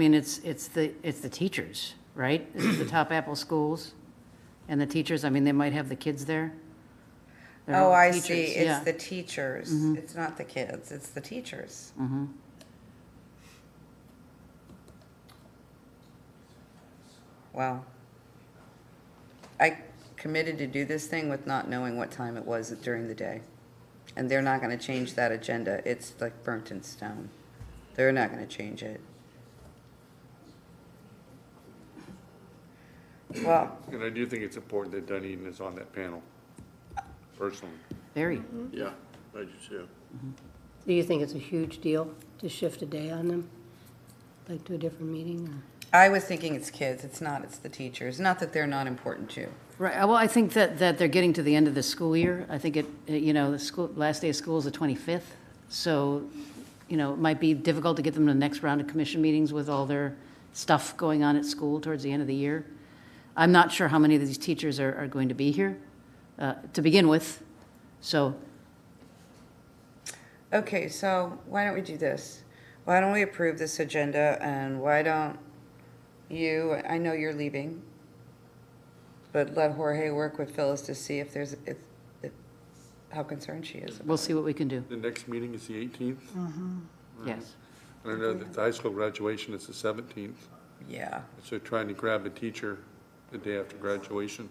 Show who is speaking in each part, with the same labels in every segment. Speaker 1: I mean, it's, it's the, it's the teachers, right? This is the top Apple schools and the teachers, I mean, they might have the kids there. They're all
Speaker 2: Oh, I
Speaker 1: teachers,
Speaker 2: see.
Speaker 1: yeah. Mm-hmm.
Speaker 2: It's the teachers. It's not the kids. It's the teachers. Wow. I committed to do this thing with not knowing what time it was during the day. And they're not going to change that agenda. It's like burnt in stone. They're not going to change it. Well,
Speaker 3: And I do think it's important that Dunedin is on that panel, personally.
Speaker 1: Very.
Speaker 2: Mm-hmm.
Speaker 4: Yeah, I do too.
Speaker 5: Do you think it's a huge deal to shift a day on them, like to a different meeting? or-
Speaker 2: I was thinking it's kids. It's not. It's the teachers. Not that they're not important too.
Speaker 1: Right, well, I think that, that they're getting to the end of the school year. I think it, you know, the school, last day of school is the 25th. So, you know, it might be difficult to get them to the next round of commission meetings with all their stuff going on at school towards the end of the year. I'm not sure how many of these teachers are, are going to be here uh, to begin with. So
Speaker 2: Okay, so why don't we do this? Why don't we approve this agenda and why don't you, I know you're leaving, but let Jorge work with Phyllis to see if there's, if, if, how concerned she is.
Speaker 1: we'll see what we can do,
Speaker 3: The next meeting is the 18th,
Speaker 1: yes.
Speaker 3: and I know that the high school graduation is the 17th,
Speaker 2: Yeah.
Speaker 3: so trying to grab a teacher the day after graduation.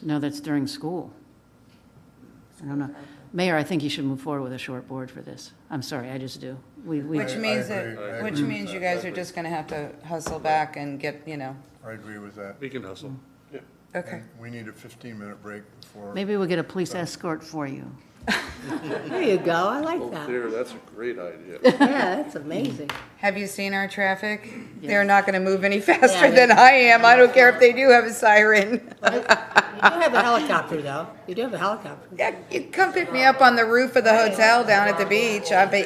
Speaker 1: No, that's during school. I don't know. Mayor, I think you should move forward with a short board for this. I'm sorry, I just do. We, we,
Speaker 2: Which means
Speaker 4: agree. I
Speaker 2: that, which
Speaker 4: agree with
Speaker 2: means
Speaker 4: that.
Speaker 2: you guys are just gonna have to hustle back and get, you know,
Speaker 4: I agree with that.
Speaker 3: We can hustle.
Speaker 2: okay.
Speaker 4: And We need a 15-minute break before.
Speaker 1: maybe we'll get a police escort for you.
Speaker 5: There you go, I like that.
Speaker 6: There, that's a great idea.
Speaker 5: Yeah, that's amazing.
Speaker 2: Have you seen our traffic? They're not gonna move any faster than I am. I don't care if they do have a siren.
Speaker 5: You do have a helicopter, though. You do have a helicopter.
Speaker 2: Yeah, you come pick me up on the roof of the hotel down at the beach. I'll be,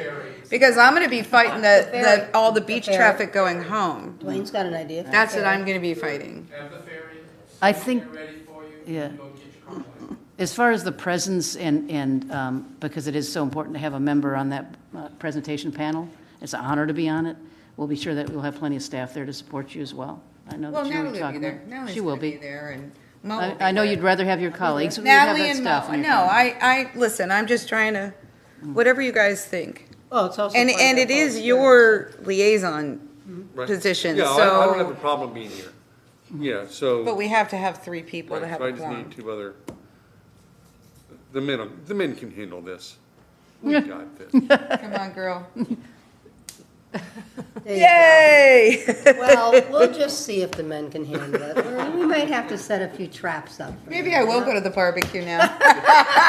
Speaker 2: because I'm gonna be fighting the, the, all the beach traffic going home.
Speaker 5: Dwayne's got an idea.
Speaker 2: That's what I'm gonna be fighting.
Speaker 7: Have the ferry.
Speaker 1: I think,
Speaker 7: They're ready for you.
Speaker 1: Yeah.
Speaker 7: Go get your car.
Speaker 1: as far as the presence and, and, um, because it is so important to have a member on that uh, presentation panel, it's an honor to be on it. We'll be sure that we'll have plenty of staff there to support you as well. I know
Speaker 2: Well,
Speaker 1: that you were
Speaker 2: Natalie will be
Speaker 1: talking
Speaker 2: there.
Speaker 1: about.
Speaker 2: Natalie's
Speaker 1: She will
Speaker 2: gonna be
Speaker 1: be.
Speaker 2: there and Mo will
Speaker 1: I,
Speaker 2: be
Speaker 1: I know
Speaker 2: there.
Speaker 1: you'd rather have your colleagues. You have
Speaker 2: Natalie
Speaker 1: that
Speaker 2: and
Speaker 1: staff
Speaker 2: Mo,
Speaker 1: in your Mm.
Speaker 2: no, I, I, listen, I'm just trying to, whatever you guys think.
Speaker 5: Well, Oh, it's also.
Speaker 2: And,
Speaker 5: part of
Speaker 2: and
Speaker 5: our
Speaker 2: it is
Speaker 5: culture.
Speaker 2: your liaison
Speaker 3: Mm-hmm. Right.
Speaker 2: position,
Speaker 3: Yeah, I- I don't
Speaker 2: so-
Speaker 3: have a problem being here. Yeah,
Speaker 2: But
Speaker 3: so,
Speaker 2: we have to have three people to
Speaker 3: right,
Speaker 2: have
Speaker 3: so I
Speaker 2: a
Speaker 3: just
Speaker 2: quorum.
Speaker 3: need two other, the men, the men can handle this. We got this.
Speaker 2: Come on, girl.
Speaker 5: There you go.
Speaker 2: Yay!
Speaker 5: Well, we'll just see if the men can handle it. Or We might have to set a few traps up. for
Speaker 2: Maybe
Speaker 5: them.
Speaker 2: I will go to the barbecue now.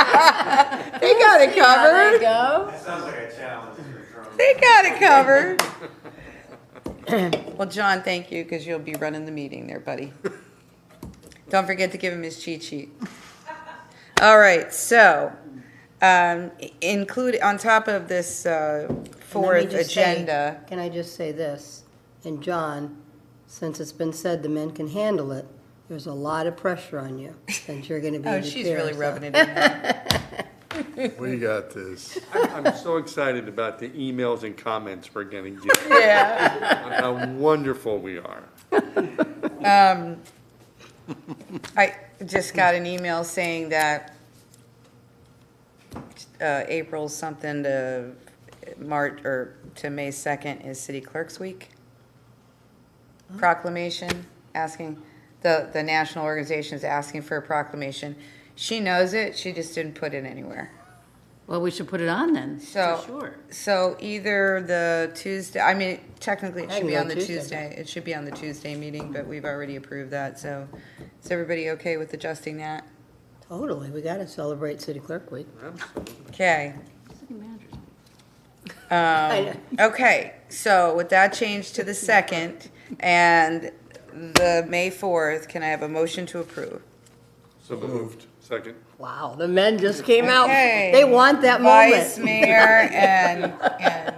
Speaker 2: They got it
Speaker 5: There you
Speaker 2: covered.
Speaker 5: go.
Speaker 8: Sounds like a challenge you're throwing.
Speaker 2: They got it covered. Well, John, thank you, because you'll be running the meeting there, buddy. Don't forget to give him his cheat sheet. All right, so, um, i- include, on top of this, uh,
Speaker 5: And let me
Speaker 2: fourth
Speaker 5: just say-
Speaker 2: agenda.
Speaker 5: Can I just say this? And John, since it's been said the men can handle it, there's a lot of pressure on you, since you're gonna be
Speaker 2: Oh,
Speaker 5: the
Speaker 2: she's
Speaker 5: chair,
Speaker 2: really
Speaker 5: so-
Speaker 2: rubbing it in.
Speaker 4: We got this.
Speaker 3: I'm I'm so excited about the emails and comments we're getting, on
Speaker 2: Yeah.
Speaker 3: how wonderful we are.
Speaker 2: I just got an email saying that uh, April something to March, or to May 2nd is City Clerks Week. Proclamation, asking, the, the national organization is asking for a proclamation. She knows it, she just didn't put it anywhere.
Speaker 1: Well, we should put it on then, for
Speaker 2: So-
Speaker 1: sure.
Speaker 2: So either the Tuesday, I mean, technically it
Speaker 5: I
Speaker 2: should
Speaker 5: can
Speaker 2: be
Speaker 5: go
Speaker 2: on the
Speaker 5: Tuesday,
Speaker 2: Tuesday, it should be on the Tuesday meeting, but we've already approved that, so is everybody okay with adjusting that?
Speaker 5: Totally, we gotta celebrate City Clerk Week.
Speaker 2: Okay.
Speaker 1: City managers.
Speaker 5: I-
Speaker 2: Um, Okay, so with that change to the second and the May 4th, can I have a motion to approve?
Speaker 3: So moved. Second.
Speaker 5: Wow, the men just came out.
Speaker 2: Okay.
Speaker 5: They want that
Speaker 2: Vice
Speaker 5: moment.
Speaker 2: Mayor and, and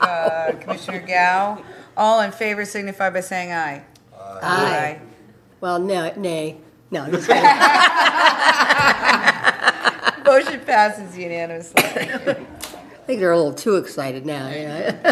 Speaker 2: uh, Commissioner Gao, all in favor signify by saying aye.
Speaker 5: Aye. Well, no, nay, no, I'm just kidding.
Speaker 2: Aye. Motion passes unanimously.
Speaker 5: think they're a little too excited now, you know?